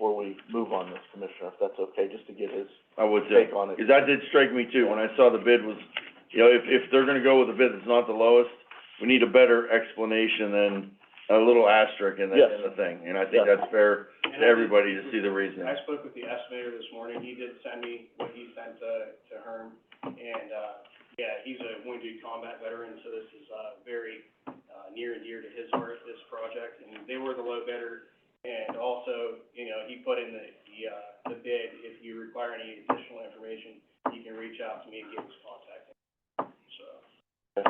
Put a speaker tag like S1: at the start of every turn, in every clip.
S1: we move on this, Commissioner, if that's okay, just to get his
S2: I would say,
S1: take on it.
S2: cause that did strike me too, when I saw the bid was, you know, if, if they're gonna go with a bid that's not the lowest, we need a better explanation than a little asterisk in the, in the thing, and I think
S1: Yes.
S2: that's fair
S3: And
S2: to
S3: I did-
S2: everybody to see the reason.
S3: I spoke with the estimator this morning, he did send me what he sent to, to Herm, and, uh, yeah, he's a wounded combat veteran, so this is, uh, very, uh, near and dear to his heart, this project, and they were the low bidder, and also, you know, he put in the, the, uh, the bid, if you require any additional information, you can reach out to me and get his contact, so.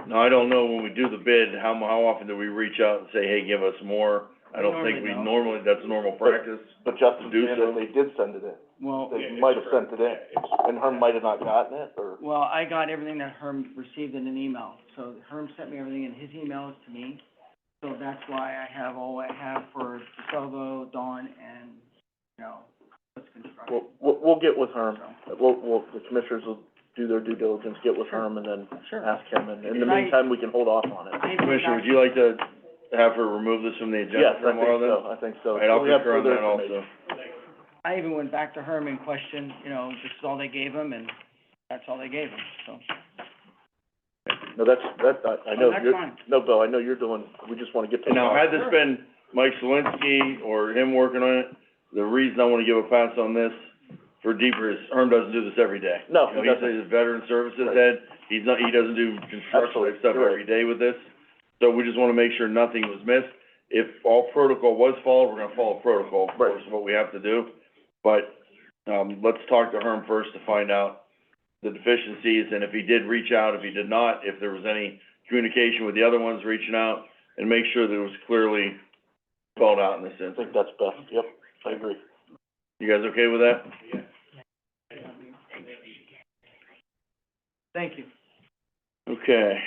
S2: Now, I don't know, when we do the bid, how, mu- how often do we reach out and say, hey, give us more? I don't think we
S4: Normally don't.
S2: normally, that's normal practice.
S1: But Justin
S2: Do
S1: said
S2: so.
S1: they did send it in,
S4: Well,
S1: They
S3: yeah, it's
S1: might have
S3: correct.
S1: sent it in.
S3: Yeah, it's-
S1: and Herm might have not gotten it, or,
S4: well, I got everything that Herm received in an email, so Herm sent me everything in his emails to me. So that's why I have all I have for DeSalvo, Dawn, and, you know, what's construction,
S1: we'll, we'll, we'll get with Herm.
S4: so,
S1: We'll, we'll, the commissioners will do their due diligence, get with Herm, and then
S4: sure.
S1: ask him, and in the
S4: And I-
S1: meantime, we can hold off on it.
S4: I-
S2: Commissioner, would you like to have her remove this from the agenda
S1: Yes, I
S2: for
S1: think
S2: tomorrow then?
S1: so, I think so.
S2: All right, I'll
S1: So we have
S2: concur on
S1: further
S2: that also.
S1: information.
S4: I even went back to Herm and questioned, you know, this is all they gave him, and that's all they gave him, so.
S1: No, that's, that, I, I know,
S4: Oh, that's
S1: you're,
S4: fine.
S1: no, Bill, I know you're doing, we just wanna get to.
S2: And now, had this
S4: Sure.
S2: been Mike Selinsky or him working on it, the reason I wanna give a pass on this for deeper is Herm doesn't do this every day.
S1: No,
S2: You know,
S1: he
S2: he's
S1: doesn't.
S2: a veteran services
S1: Right.
S2: head, he's not, he doesn't do construction
S1: Absolutely,
S2: type stuff
S1: you're right.
S2: every day with this. So we just wanna make sure nothing was missed. If all protocol was followed, we're gonna follow protocol, of
S1: Right.
S2: course, what we have to do. But, um, let's talk to Herm first to find out the deficiencies and if he did reach out, if he did not, if there was any communication with the other ones reaching out, and make sure that it was clearly spelled out in this
S1: I
S2: instance.
S1: think that's best, yep, I agree.
S2: You guys okay with that?
S4: Thank you.
S2: Okay.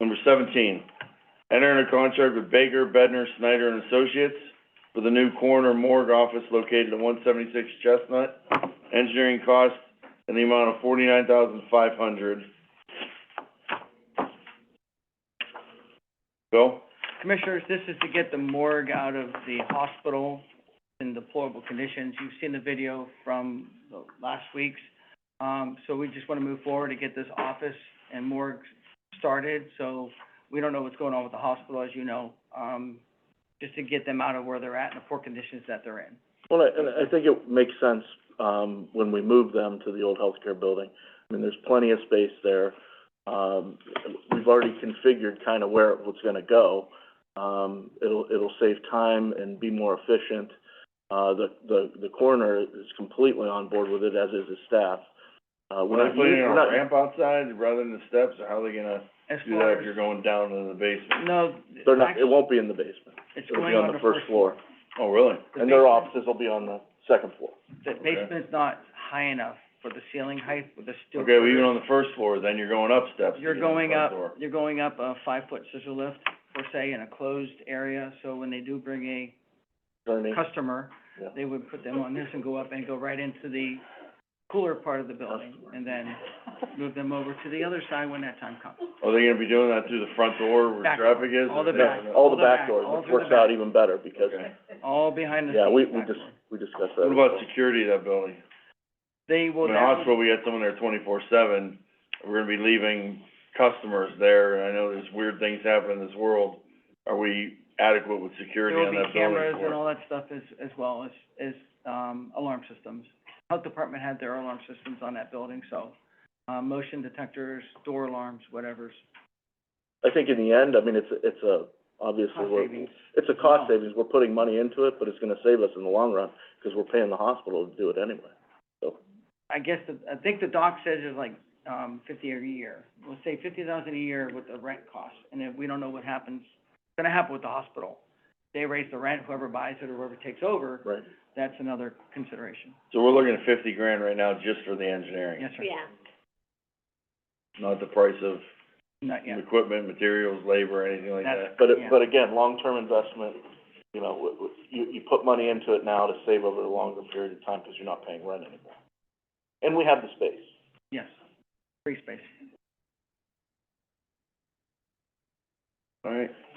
S2: Number seventeen, enter in a contract with Baker, Bedner, Snyder and Associates for the new coroner morgue office located at one seventy-six Chestnut. Engineering cost in the amount of forty-nine thousand five hundred. Bill?
S4: Commissioners, this is to get the morgue out of the hospital in deplorable conditions. You've seen the video from the last week's. Um, so we just wanna move forward to get this office and morgue started, so we don't know what's going on with the hospital, as you know. Um, just to get them out of where they're at and the poor conditions that they're in.
S1: Well, I- and I think it makes sense, um, when we move them to the old healthcare building. I mean, there's plenty of space there. Um, we've already configured kind of where it's gonna go. Um, it'll, it'll save time and be more efficient. Uh, the, the, the coroner is completely on board with it, as is his staff. Uh, we're
S2: When I
S1: not,
S2: put in
S1: we're
S2: a
S1: not-
S2: ramp outside rather than the steps, or how are they gonna
S4: As
S2: do
S4: far
S2: that if
S4: as,
S2: you're going down into the basement?
S4: no,
S1: they're not, it
S4: actually,
S1: won't be in the basement.
S4: it's
S1: It'll
S4: going
S1: be on the first floor.
S2: Oh, really?
S4: The
S1: And their
S4: basement-
S1: offices will be on the second floor.
S4: The basement's not high enough for the ceiling height with the steel.
S2: Okay, well,
S4: curtain.
S2: even on the first floor, then you're going up steps to
S4: You're
S2: get in the
S4: going
S2: front
S4: up,
S2: door.
S4: you're going up a five-foot scissor lift, per se, in a closed area, so when they do bring a
S1: Attorney,
S4: customer,
S1: Yeah.
S4: they would put them on this and go up and go right into the cooler part of the building, and then move them over to the other side when that time comes.
S2: Are they gonna be doing that through the front door where
S4: Back
S2: traffic is?
S4: all
S2: or-
S4: the back.
S2: No, no.
S1: all the
S4: the
S1: back
S4: back,
S1: doors,
S4: all
S1: which
S4: through the
S1: works out
S4: back.
S1: even better because,
S2: Okay.
S4: All behind the
S1: yeah, we,
S4: scenes
S1: we
S4: back
S1: just,
S4: door.
S1: we discussed that.
S2: What about security of that building?
S4: They will
S2: In the
S4: now-
S2: hospital, we had someone there twenty-four seven, we're gonna be leaving customers there, and I know there's weird things happen in this world. Are we adequate with security on that building?
S4: There will be cameras
S2: for it?
S4: and all that stuff as, as well as, as, um, alarm systems. Health department had their alarm systems on that building, so, uh, motion detectors, door alarms, whatever's,
S1: I think in the end, I mean, it's, a- it's a, obviously,
S4: cost
S1: we're,
S4: savings.
S1: it's a cost
S4: Wow.
S1: savings, we're putting money into it, but it's gonna save us in the long run, because we're paying the hospital to do it anyway.
S4: I guess, the- I think the doc says it's like, um, fifty a year. We'll say fifty thousand a year with the rent cost, and then we don't know what happens, it's gonna happen with the hospital. They raise the rent, whoever buys it or whoever takes over,
S1: Right.
S4: that's another consideration.
S2: So we're looking at fifty grand right now just for the engineering,
S4: Yes, sir. Yeah.
S2: not the price of
S4: Not yet.
S2: equipment, materials, labor, anything like
S4: That's-
S2: that.
S1: But it,
S4: Yeah.
S1: but again, long-term investment, you know, w- w- you, you put money into it now to save over a longer period of time, because you're not paying rent anymore. And we have the space.
S4: Yes. Free space.
S2: All right,